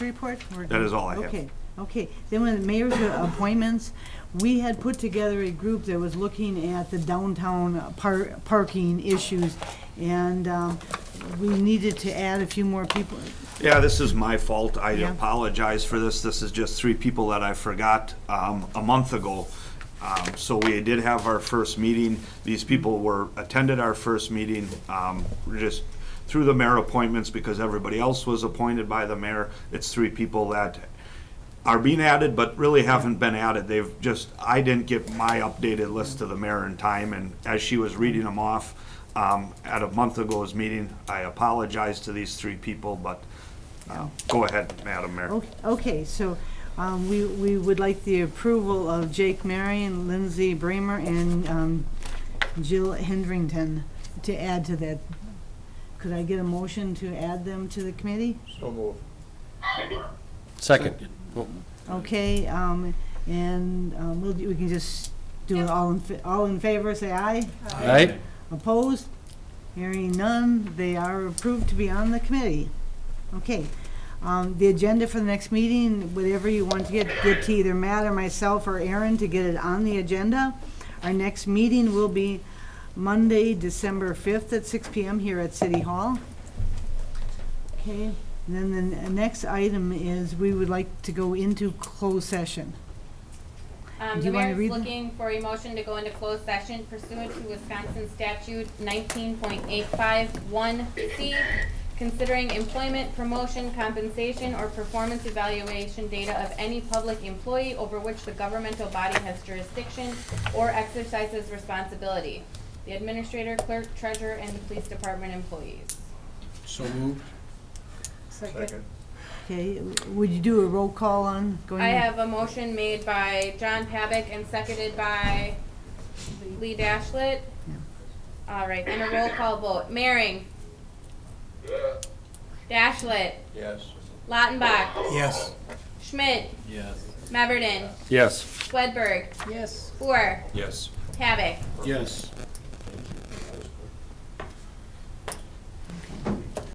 report? We're That is all I have. Okay, okay. Then when the mayor's appointments, we had put together a group that was looking at the downtown par- parking issues. And, um, we needed to add a few more people. Yeah, this is my fault. I Yeah. apologize for this. This is just three people that I forgot um, a month ago. Um, So we did have our first meeting. These people were, attended our first meeting, um, we're just through the mayor appointments because everybody else was appointed by the mayor. It's three people that are being added, but really haven't been added. They've just, I didn't get my updated list to the mayor in time, and as she was reading them off um, at a month ago's meeting, I apologize to these three people, but uh, go ahead, Madam Mayor. Okay, Okay, so, um, we, we would like the approval of Jake Marion, Lindsay Bramer, and, um, Jill Hendrington to add to that. Could I get a motion to add them to the committee? So move. Second. Okay, um, and, um, we'll, we can just do it all in, fa- all in favor, say aye. Aye? Opposed? Hearing none, they are approved to be on the committee. Okay, um, the agenda for the next meeting, whatever you want to get, get to either Matt or myself or Aaron to get it on the agenda. Our next meeting will be Monday, December fifth at six PM here at City Hall. Okay, and then the n- next item is we would like to go into closed session. Um, Do the you wanna mayor is read them? looking for a motion to go into closed session pursuant to Wisconsin statute nineteen point eight five one C, considering employment, promotion, compensation, or performance evaluation data of any public employee over which the governmental body has jurisdiction or exercises responsibility. The administrator, clerk, treasurer, and the police department employees. So moved. Second. Okay, would you do a roll call on going? I have a motion made by John Pavick and seconded by Lee Dashlet. All right, and a roll call vote. Maring. Dashlet. Yes. Lautenbach. Yes. Schmidt. Yes. Meverden. Yes. Swedberg. Yes. Boer. Yes. Pavick. Yes.